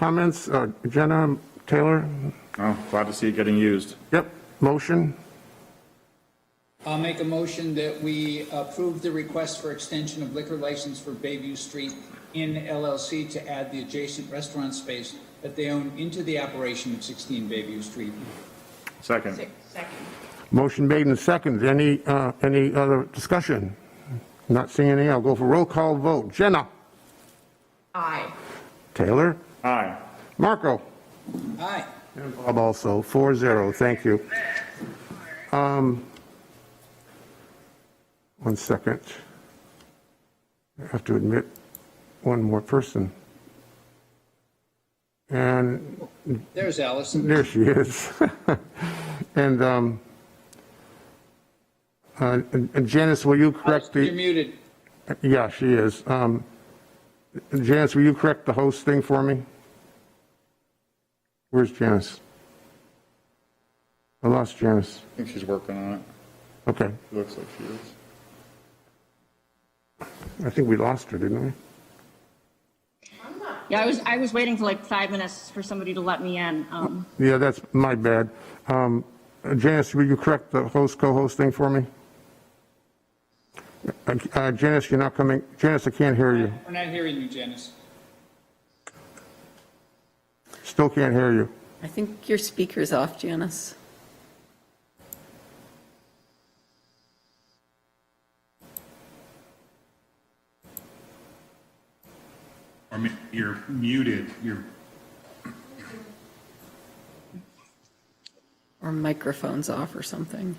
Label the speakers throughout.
Speaker 1: Comments, uh, Jenna, Taylor?
Speaker 2: Oh, glad to see it getting used.
Speaker 1: Yep, motion?
Speaker 3: I'll make a motion that we approve the request for extension of liquor license for Bayview Street in LLC to add the adjacent restaurant space that they own into the operation of 16 Bayview Street.
Speaker 2: Second.
Speaker 4: Six, second.
Speaker 1: Motion made and seconded. Any, uh, any other discussion? Not seeing any. I'll go for roll call vote. Jenna?
Speaker 4: Aye.
Speaker 1: Taylor?
Speaker 2: Aye.
Speaker 1: Marco?
Speaker 3: Aye.
Speaker 1: And Bob also, 4-0, thank you. Um, One second. I have to admit one more person. And
Speaker 3: There's Allison.
Speaker 1: there she is. And um, uh, and Janice, will you correct
Speaker 3: You're
Speaker 1: the,
Speaker 3: muted.
Speaker 1: yeah, she is. Um, Janice, will you correct the host thing for me? Where's Janice? I lost Janice.
Speaker 2: I think she's working on it.
Speaker 1: Okay,
Speaker 2: It Looks like she is.
Speaker 1: I think we lost her, didn't we?
Speaker 5: Yeah, I was, I was waiting for like five minutes for somebody to let me in. Um,
Speaker 1: Yeah, that's my bad. Um, Janice, will you correct the host, co-host thing for me? Uh, uh, Janice, you're not coming, Janice, I can't hear you,
Speaker 3: We're not hearing you, Janice.
Speaker 1: still can't hear you.
Speaker 6: I think your speaker's off, Janice.
Speaker 7: Or mu- you're muted, you're,
Speaker 6: Or microphone's off or something.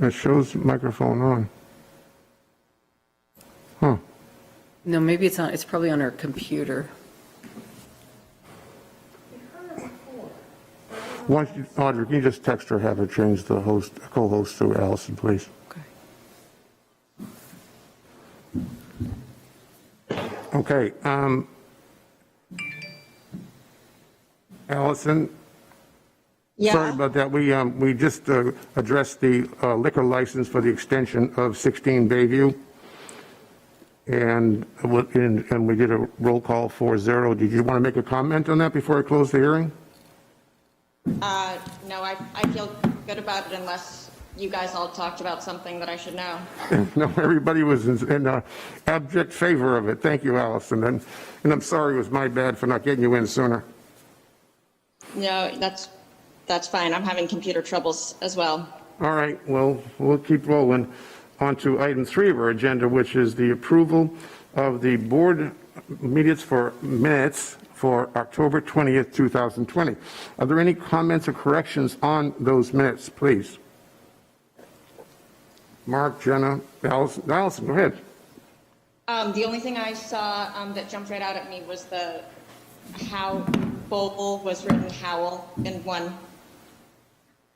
Speaker 1: It shows microphone on. Huh,
Speaker 6: No, maybe it's on, it's probably on her computer.
Speaker 1: why, don't you- Audrey, can you just text her, have her change the host, co-host to Allison, please?
Speaker 6: Okay.
Speaker 1: Okay, um, Allison? Sorry about that. We, um, we just uh, addressed the uh, liquor license for the extension of 16 Bayview. And, uh, what- and and we did a roll call 4-0. Did you want to make a comment on that before I close the hearing?
Speaker 4: Uh, no, I, I feel good about it unless you guys all talked about something that I should know.
Speaker 1: No, everybody was in in, uh, abject favor of it. Thank you, Allison. And, and I'm sorry it was my bad for not getting you in sooner.
Speaker 4: No, that's, that's fine. I'm having computer troubles as well.
Speaker 1: All right, well, we'll keep rolling. On to item three of our agenda, which is the approval of the board minutes for, minutes for October 20th, 2020. Are there any comments or corrections on those minutes, please? Mark, Jenna, Allison, Allison, go ahead.
Speaker 4: Um, the only thing I saw, um, that jumped right out at me was the how bowl was written howl in one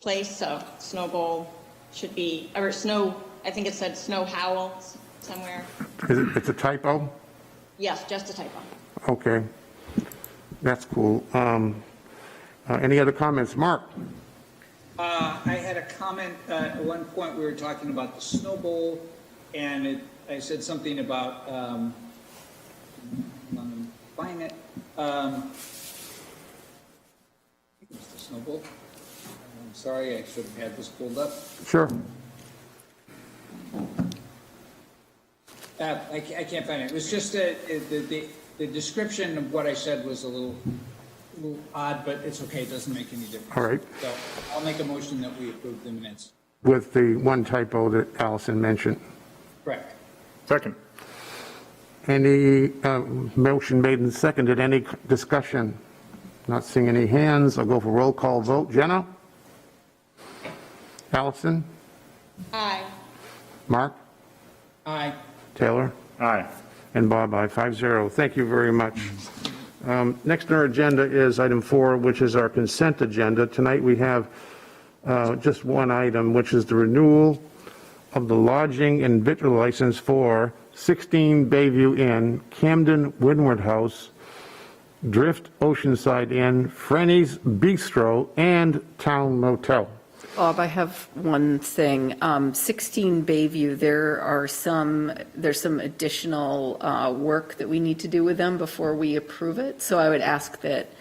Speaker 4: place, so snow bowl should be, or snow, I think it said snow howl s- somewhere.
Speaker 1: Is it, it's a typo?
Speaker 4: Yes, just a typo.
Speaker 1: Okay, that's cool. Um, uh, Any other comments? Mark?
Speaker 3: Uh, I had a comment, uh, at one point, we were talking about the snow bowl, and it, I said something about, um, let me find it, um, I think it was the snow bowl. I'm sorry, I should have had this pulled up.
Speaker 1: Sure.
Speaker 3: Uh, I, ca- I can't find it. It was just a, it- the, the, the description of what I said was a little, little odd, but it's okay. It doesn't make any difference.
Speaker 1: All right.
Speaker 3: So I'll make a motion that we approve the minutes.
Speaker 1: With the one typo that Allison mentioned.
Speaker 3: Correct.
Speaker 2: Second.
Speaker 1: Any uh, motion made and seconded, any discussion? Not seeing any hands, I'll go for roll call vote. Jenna? Allison?
Speaker 4: Aye.
Speaker 1: Mark?
Speaker 3: Aye.
Speaker 1: Taylor?
Speaker 2: Aye.
Speaker 1: And Bob, I five zero. Thank you very much. Um, Next on our agenda is item four, which is our consent agenda. Tonight, we have uh, just one item, which is the renewal of the lodging and victual license for 16 Bayview Inn, Camden Windward House, Drift Oceanside Inn, Frenny's Bistro, and Town Motel.
Speaker 6: Bob, I have one thing. Um, 16 Bayview, there are some, there's some additional uh, work that we need to do with them before we approve it. So I would ask that